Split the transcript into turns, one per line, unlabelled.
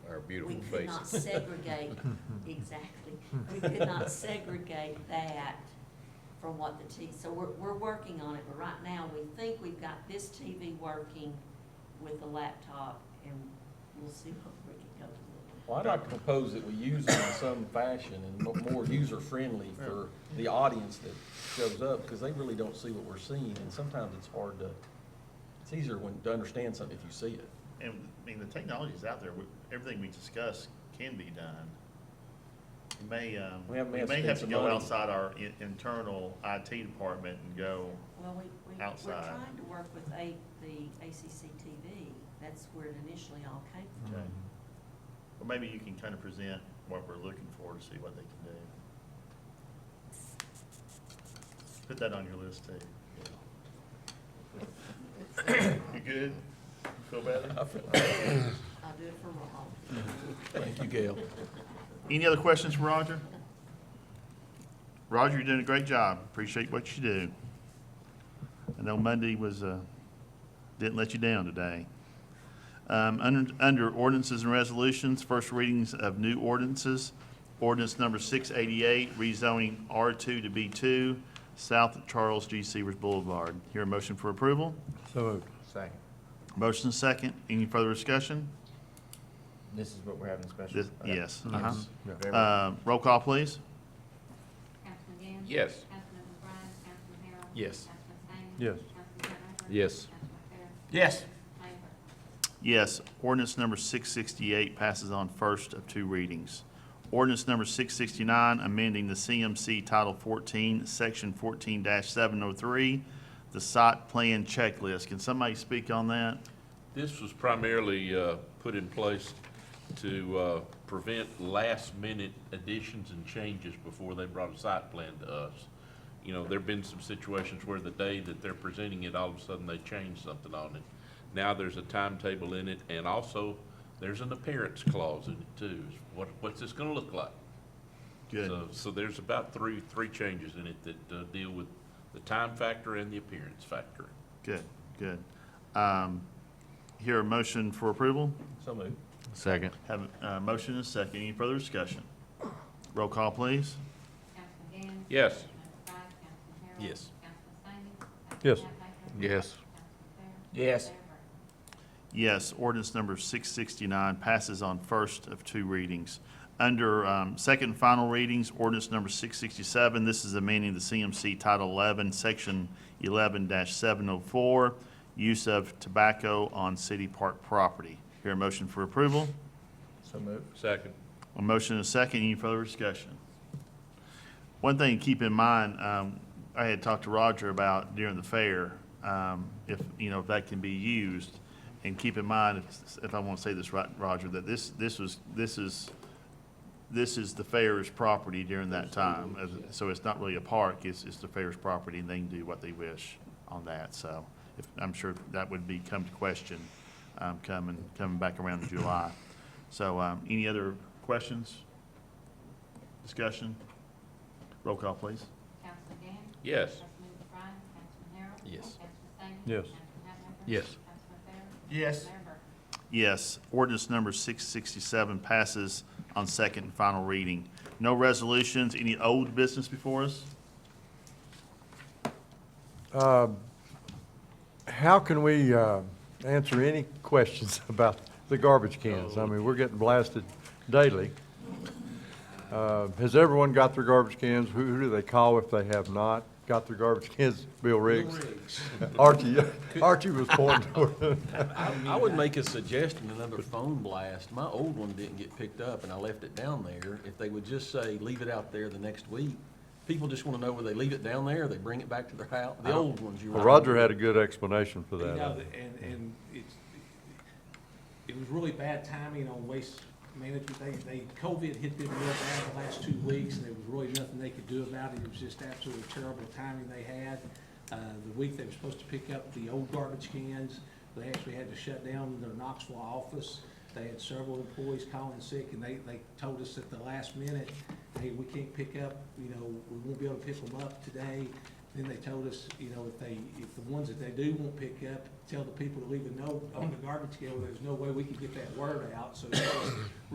beautiful
We could
faces.
not segregate, exactly, we could not segregate that from what the T, so we're, we're working on it, but right now, we think we've got this TV working with the laptop, and we'll see what we can go to.
Well, I'd like to propose that we use it in some fashion and mo- more user-friendly for the audience that shows up, because they really don't see what we're seeing, and sometimes it's hard to, it's easier when, to understand something if you see it.
And, I mean, the technology's out there, We- everything we discuss can be done. We may, um,
We have- we
we
have
may
spent
have to
some
go
money.
outside our in- internal IT department and go,
Well, we, we, we're
Outside.
trying to work with A, the ACC TV, that's where it initially all came from.
okay. Or maybe you can kind of present what we're looking for to see what they can do. Put that on your list too. You good? Feel better?
I'll do it for Ron.
Thank you, Gail.
Any other questions for Roger? Roger, you're doing a great job. Appreciate what you do. I know Monday was, uh, didn't let you down today. Um, Under under ordinances and resolutions, first readings of new ordinances. Ordinance number 688, rezoning R2 to B2, south of Charles G. Severs Boulevard. Hear a motion for approval?
So moved.
Second.
Motion is second. Any further discussion?
This is what we're having special.
This-
okay.
Yes. uh-huh.
Very well.
Uh, Roll call, please.
Councilman Gann?
Yes.
Councilman McBride? Councilman Harrell?
Yes.
Councilman Staines?
Yes.
Councilman Turnbull?
Yes.
Councilman Fair?
Yes.
Favor?
Yes, ordinance number 668 passes on first of two readings. Ordinance number 669, amending the CMC Title 14, Section 14-703, the site plan checklist. Can somebody speak on that?
This was primarily uh, put in place to uh, prevent last-minute additions and changes before they brought a site plan to us. You know, there've been some situations where the day that they're presenting it, all of a sudden they change something on it. Now there's a timetable in it, and also there's an appearance clause in it too. What, what's this gonna look like?
Good.
So- So there's about three, three changes in it that uh, deal with the time factor and the appearance factor.
Good, good. Um, Here a motion for approval?
So moved.
Second.
Have a uh, motion and a second. Any further discussion? Roll call, please.
Councilman Gann?
Yes.
Councilman McBride? Councilman Harrell?
Yes.
Councilman Staines?
Yes.
Councilman Fair?
Yes.
Councilman Fair?
Yes.
Favor?
Yes, ordinance number 669 passes on first of two readings. Under um, second and final readings, ordinance number 667, this is amending the CMC Title 11, Section 11-704, use of tobacco on city park property. Hear a motion for approval?
So moved.
Second.
A motion and a second, any further discussion? One thing to keep in mind, um, I had talked to Roger about during the fair, um, if, you know, if that can be used. And keep in mind, if, if I want to say this right, Roger, that this, this was, this is, this is the fair's property during that time. As- So it's not really a park, it's, it's the fair's property and they can do what they wish on that, so. if- I'm sure that would be come to question, um, coming, coming back around in July. So, um, any other questions? Discussion? Roll call, please.
Councilman Gann?
Yes.
Councilman McBride? Councilman Harrell?
Yes.
Councilman Staines?
Yes.
Councilman Hatmaker?
Yes.
Councilman Fair?
Yes.
Mayor Burton?
Yes, ordinance number 667 passes on second and final reading. No resolutions, any old business before us?
How can we uh, answer any questions about the garbage cans? I mean, we're getting blasted daily. Uh, Has everyone got their garbage cans? Who who do they call if they have not got their garbage cans? Bill Riggs? Archie, Archie was pointing toward,
I would make a suggestion, another phone blast. My old one didn't get picked up, and I left it down there. If they would just say, leave it out there the next week, people just want to know whether they leave it down there, or they bring it back to their house, the old ones you were.
Roger had a good explanation for
You know,
that. um,
the- and, and it's, it was really bad timing on waste management. They, they, COVID hit them real bad the last two weeks, and there was really nothing they could do about it. It was just absolutely terrible timing they had. Uh, the week they were supposed to pick up the old garbage cans, they actually had to shut down their Knoxville office. They had several employees calling sick, and they, they told us at the last minute, hey, we can't pick up, you know, we won't be able to pick them up today. Then they told us, you know, if they, if the ones that they do won't pick up, tell the people to leave a note on the garbage can. There's no way we could get that word out, so that was